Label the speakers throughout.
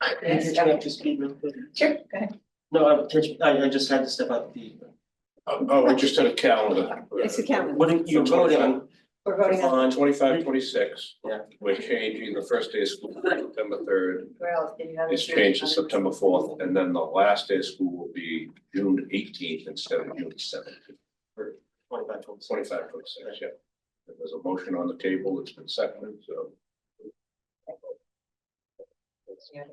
Speaker 1: Can you catch me up to speed real quick?
Speaker 2: Sure, go ahead.
Speaker 1: No, I'm catching, I I just had to step out the,
Speaker 3: Oh, oh, we just had a calendar.
Speaker 2: It's a calendar.
Speaker 1: what are you
Speaker 3: For 25.
Speaker 1: voting on?
Speaker 2: We're voting on,
Speaker 3: Twenty-five, twenty-six.
Speaker 1: Yeah.
Speaker 3: We're changing the first day of school, to September third,
Speaker 2: where else did you have?
Speaker 3: it's changed to September fourth, and then the last day of school will be June eighteenth instead of June seventh.
Speaker 1: Twenty-five, twenty-six.
Speaker 3: Twenty-five, twenty-six, yeah. There's a motion on the table, it's been seconded, so.
Speaker 2: You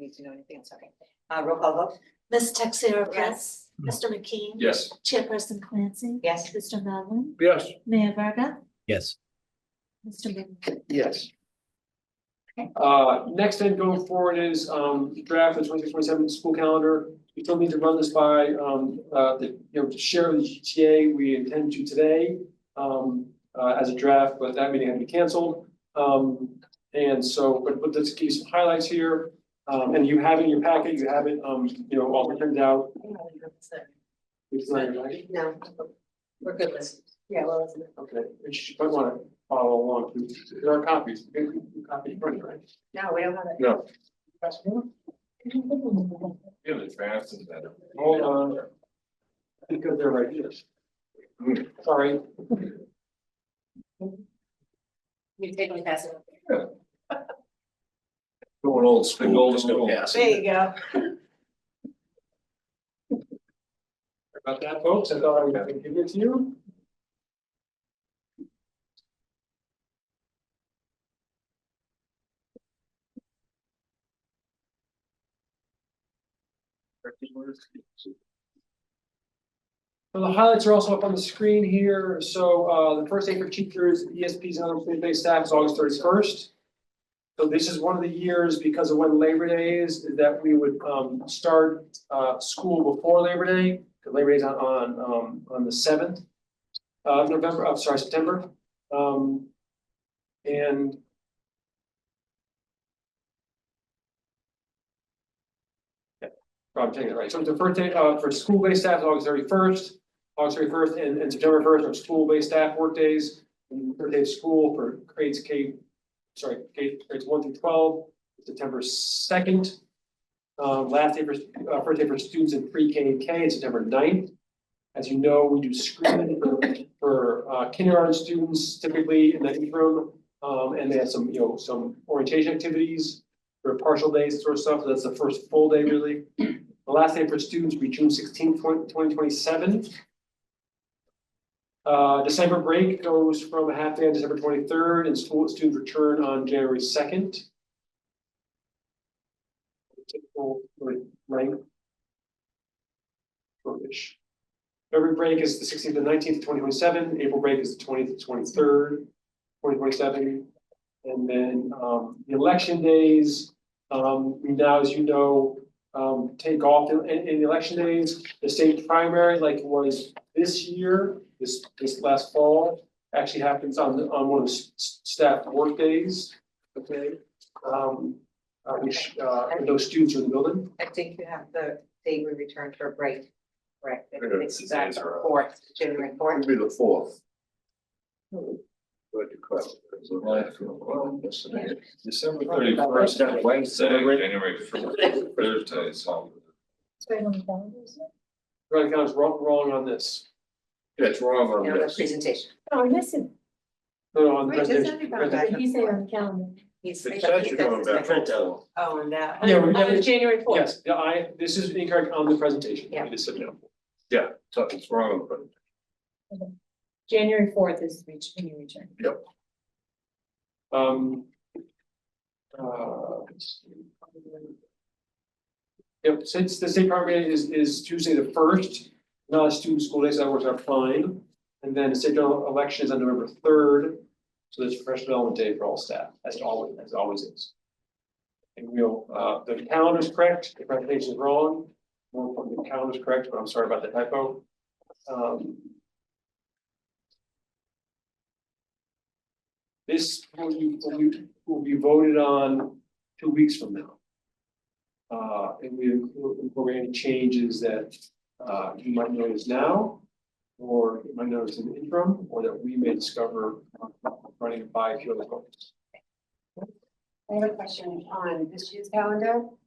Speaker 2: need to know anything, it's okay. Uh, roll call vote?
Speaker 4: Ms. Texera Prince, Mr. McKean.
Speaker 3: Yes.
Speaker 4: Chairperson Clancy.
Speaker 2: Yes.
Speaker 4: Mr. Melvin,
Speaker 3: Yes.
Speaker 4: Mayor Verga,
Speaker 5: Yes.
Speaker 4: Mr. Moon.
Speaker 6: Yes.
Speaker 4: Okay.
Speaker 6: Uh, next then going forward is, um, draft of 26-27 school calendar. We still need to run this by, um, uh, the, you know, to share with the GTA, we intend to today, um, uh, as a draft, but that meeting had to be canceled. Um, and so, but, but let's give you some highlights here. Um, and you have it in your packet, you have it, um, you know, all printed out. It's not your packet.
Speaker 2: No, we're good listeners. Yeah, well, listen.
Speaker 6: Okay, you might wanna follow along. There are copies, You can copy in front of you, right?
Speaker 2: No, we don't have it.
Speaker 3: No.
Speaker 6: Question?
Speaker 3: Yeah, the draft is better.
Speaker 6: Hold on. Because they're right here. Sorry,
Speaker 2: You take me past it.
Speaker 3: Going old school.
Speaker 5: Big old
Speaker 3: just no
Speaker 5: school.
Speaker 3: gas.
Speaker 2: There you go.
Speaker 6: about that, folks. I thought I was gonna give it to you. So the highlights are also up on the screen here. So uh, the first day for teachers, ESP's unemployed base staff E is August thirty-first. So this is one of the years because of when Labor Day is, that we would um, start uh, school before Labor Day. 'cause Labor Day is on, on, um, on the seventh of November, I'm sorry, September. Um, And Yeah, Probably taking it right. So the first day uh, for school-based staff is August thirty-first. August thirty first and and September first are school-based staff workdays. And third day of school for grades K, sorry, K grades one through twelve, September second. Um, last day for, uh, first day for students in pre-K and K, is September 9th. As you know, we do screening for, for uh, kindergarten students typically in the interim. Um, and they have some, you know, some orientation activities or partial days, sort of stuff. That's the first full day really. The last day for students will be June sixteenth, twenty twenty-seven. Uh, December break goes from a half day on December twenty-third and school students return on January second. Typical, like, length. Shortish. February break is the sixteenth and nineteenth, twenty twenty-seven, April break is the twentieth, twenty-third, twenty twenty-seven. And then, um, the election days, um, we now, as you know, um, take off in, in in the election days. The state primary, like it was this year, this, this last fall, actually happens on, the- on one of the s- s- staff workdays, okay? Um, uh, which, uh, and those students are in the building.
Speaker 2: I think you have the day we returned for a break. Correct.
Speaker 3: I know, it's
Speaker 2: It's
Speaker 3: the
Speaker 2: back
Speaker 3: days are up.
Speaker 2: fourth, January fourth.
Speaker 3: It'll be the fourth.
Speaker 2: Hmm.
Speaker 3: Good question. It's a life of a problem, isn't it?
Speaker 5: December
Speaker 2: Probably about
Speaker 5: thirty-first,
Speaker 1: right.
Speaker 5: Wednesday,
Speaker 3: Right.
Speaker 5: January first, Thursday, so.
Speaker 6: Right, I was wrong, wrong on this.
Speaker 3: Yeah, it's wrong
Speaker 2: You
Speaker 3: on
Speaker 2: know, the
Speaker 3: this.
Speaker 2: presentation.
Speaker 4: Oh, listen,
Speaker 6: No, no, on the
Speaker 2: Wait, doesn't
Speaker 6: presentation.
Speaker 2: it go back?
Speaker 4: you say on the calendar.
Speaker 2: He's.
Speaker 3: It says you're going back.
Speaker 1: Printout.
Speaker 2: Oh, and that.
Speaker 6: Yeah, we're
Speaker 4: On
Speaker 6: definitely-
Speaker 4: Uh, January fourth.
Speaker 6: Yes, the I, this is incorrect on the presentation.
Speaker 2: Yeah.
Speaker 6: It is submitted.
Speaker 3: Yeah, it's- it's wrong, but
Speaker 4: January fourth is reach, when you return.
Speaker 6: Um. uh, Yep, since the state primary is, is Tuesday the first, non-student school days, that works out fine. And then the state general election is on November third, so there's fresh development day for all staff, as it always, as it always is. And we'll, uh, the calendar's correct, the presentation is wrong, more importantly, the calendar's correct, but I'm sorry about the typo. Um, This will be, will be, will be voted on two weeks from now. Uh, and we will incorporate any changes that, uh, you might notice now. Or you might notice in the interim, or that we may discover uh, running by here.
Speaker 4: I have a question on this year's calendar.